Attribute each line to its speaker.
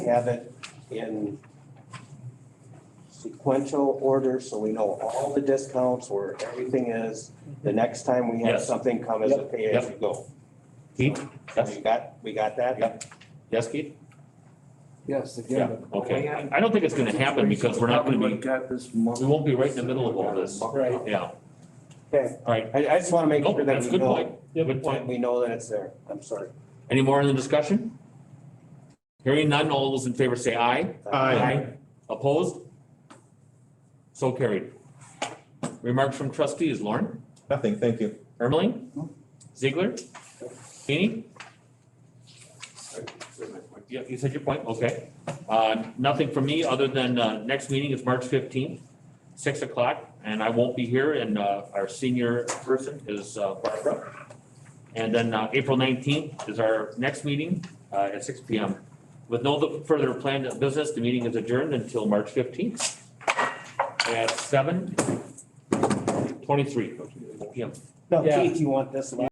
Speaker 1: have it in sequential order, so we know all the discounts where everything is. The next time we have
Speaker 2: Yes.
Speaker 1: something come as a pay as you go.
Speaker 2: Keith? Yes.
Speaker 1: We got, we got that?
Speaker 2: Yep. Yes, Keith?
Speaker 3: Yes,
Speaker 2: Oh, Yeah,
Speaker 3: again. but
Speaker 2: okay.
Speaker 3: the land
Speaker 2: I don't think it's gonna happen because we're not gonna
Speaker 3: probably
Speaker 2: be,
Speaker 3: Got this month.
Speaker 2: we won't be right in the middle of all this.
Speaker 1: Right.
Speaker 2: Yeah,
Speaker 1: Okay,
Speaker 2: all right.
Speaker 1: I, I just want to make
Speaker 2: Nope,
Speaker 1: sure that
Speaker 2: that's a
Speaker 1: we
Speaker 2: good
Speaker 1: know,
Speaker 2: point. Good point.
Speaker 1: we know that it's there. I'm sorry.
Speaker 2: Any more in the discussion? Hearing none, all those in favor say aye. Opposed? So carried. Remarks from trustees, Lauren,
Speaker 4: Nothing, thank you.
Speaker 2: Ermeling, Ziegler, Feeny? Yeah, you said your point, okay. Uh, nothing from me, other than, uh, next meeting is March fifteenth, six o'clock, and I won't be here, and, uh, our senior person is uh, Barbara. And then, uh, April nineteenth is our next meeting, uh, at six P M. With no further planned business, the meeting is adjourned until March fifteenth at seven twenty-three P M.
Speaker 1: No,
Speaker 5: Yeah.
Speaker 1: Keith, you want this one?